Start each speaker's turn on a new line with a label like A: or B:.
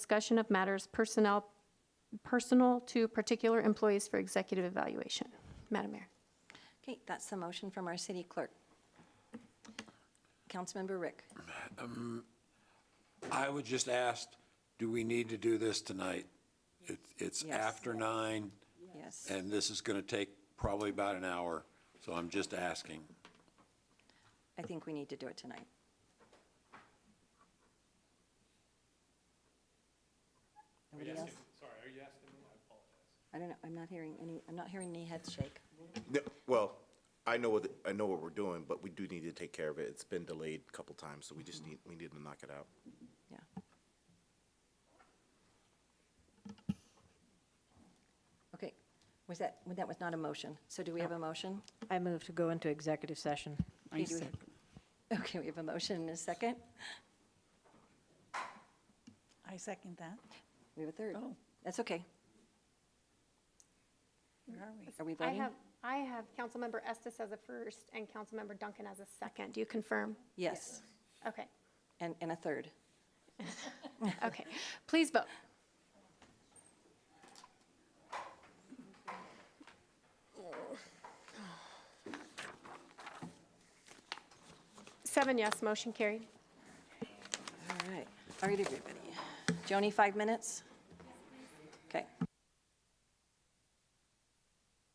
A: discussion of matters personnel, personal to particular employees for executive evaluation. Madam Mayor.
B: Okay, that's the motion from our city clerk. Councilmember Rick.
C: I would just ask, do we need to do this tonight? It's, it's
B: Yes.
C: after nine,
B: Yes.
C: and this is going to take probably about an hour, so I'm just asking.
B: I think we need to do it tonight. Anybody else?
D: Sorry, are you asking me? I apologize.
B: I don't know, I'm not hearing any, I'm not hearing any heads shake.
E: No, Well, I know what, I know what we're doing, but we do need to take care of it. It's been delayed a couple times, so we just need, we need to knock it out.
B: Yeah. Okay, was that, well, that was not a motion. So do we have a motion?
F: I move to go into executive session.
B: Okay, do we- Okay, we have a motion and a second.
G: I second that.
B: We have a third.
G: Oh.
B: That's okay.
G: Where are we?
B: Are we
A: I
B: voting?
A: have, I have Councilmember Estes as a first and Councilmember Duncan as a second. Do you confirm?
B: Yes,
A: Okay,
B: and, and a third.
A: okay. Please vote. Seven yes, motion carried.
B: All right, all right, everybody. Joni, five minutes? Okay.